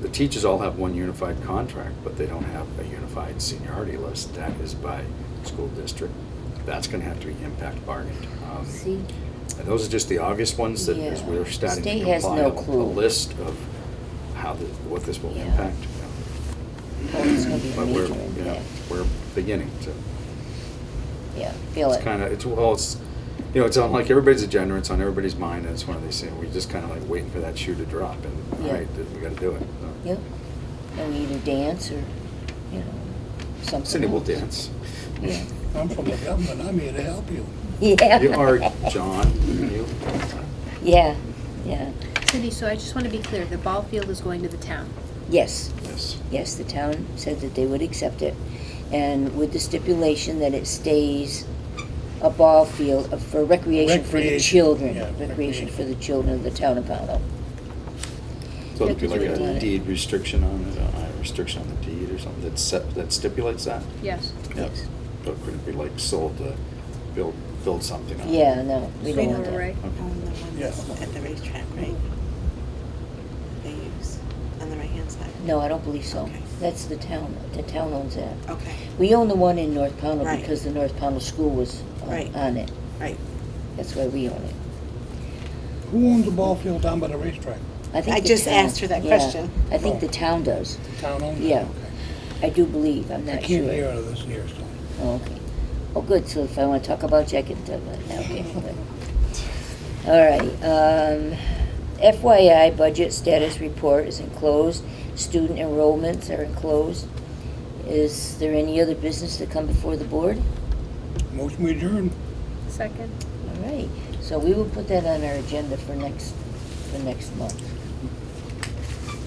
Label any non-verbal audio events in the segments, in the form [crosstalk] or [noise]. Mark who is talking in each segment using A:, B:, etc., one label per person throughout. A: the teachers all have one unified contract, but they don't have a unified seniority list. That is by school district. That's gonna have to be impact bargained. Um,
B: See,
A: And those are just the August ones that, as
B: Yeah.
A: we're starting to
B: State has
A: compile
B: no
A: a
B: clue.
A: list of how, the- what this will
B: Yeah.
A: impact.
B: well, it's gonna be a
A: But we're,
B: major
A: you know,
B: impact.
A: we're beginning to.
B: Yeah, feel
A: It's kind
B: it.
A: of, it's, well, it's, you know, it's on like everybody's agenda, it's on everybody's mind, and it's one of these things, we're just kind of like waiting for that shoe to drop, and, all
B: Yeah.
A: right, we gotta do it. so.
B: Yep. And we either dance or, you know, something.
A: Cindy will
B: else.
A: dance.
B: Yeah.
C: [laughs]
B: [laughs]
C: I'm from the government, I'm here to help you.
B: Yeah.
A: You are John, you,
B: [laughs] Yeah, yeah.
D: Cindy, so I just want to be clear, the ball field is going to the town.
B: Yes,
A: yes,
B: yes, the town said that they would accept it. And with the stipulation that it stays a ball field of- for recreation for the
C: Recreation,
B: children.
C: yeah,
B: Recreation
C: recreation.
B: for the children of the town of Powell.
A: so it'd be
B: Yeah,
A: like
B: that's what
A: a
B: I-
A: deed restriction on it, a restriction on the deed or something that set, that stipulates that.
D: Yes.
B: Yes.
A: But could it be like sold to build, build something on it?
B: Yeah, no, we don't want
D: Sweet
B: that.
D: Right.
E: On the one that's at the racetrack, right? They use, on the right-hand side?
B: No, I don't believe so.
E: Okay.
B: That's the town, the town owns that.
E: Okay,
B: We own the one in North Pownell
E: Right.
B: because the North Pownell School was on-
E: Right.
B: on it.
E: right.
B: That's why we own it.
C: Who owns the ball field down by the racetrack?
B: think
E: I
B: the
E: just
B: town-
E: asked her that
B: yeah,
E: question.
B: I think the
C: Oh.
B: town does.
C: The town owns it?
B: Yeah.
C: Okay.
B: I do believe, I'm
C: I
B: not sure.
C: can't hear out of this here, so.
B: Oh, okay. Oh, good, so if I want to talk about Jack and Deb,
E: [laughs]
B: okay. good. All right, um, FYI, budget status report is enclosed, student enrollments are enclosed. Is there any other business to come before the board?
C: Motion we adjourn.
D: Second?
B: All right, so we will put that on our agenda for next, for next month.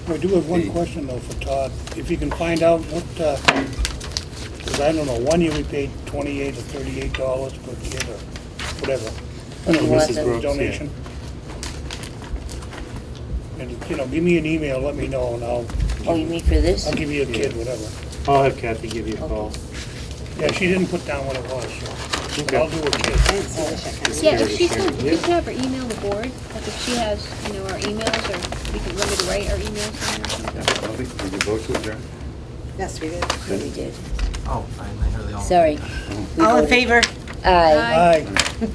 C: I do have one
A: The-
C: question though for Todd. If you can find out what, because I don't know, one year we paid twenty-eight or thirty-eight dollars per kid or whatever.
B: But he wants
C: This is
B: it-
C: Donation. And, you know, give me an email, let me know, and I'll,
B: Oh, you mean for this?
C: I'll give you a kid, whatever.
F: I'll have Kathy give you a call.
C: Yeah, she didn't put down what it was, so, but I'll do a kid.
E: I didn't see the check on it.
D: Yeah, if she could, if you could have her email the board, like if she has, you know, our emails, or we could limit to write our emails on there or
A: Yeah, I
D: something.
A: don't think, did you vote to adjourn?
E: Yes, we did.
B: Yeah, we did.
G: Oh, I I heard they all.
B: Sorry. We
E: All in
B: voted-
E: favor?
B: Aye.
D: Aye.
C: Aye.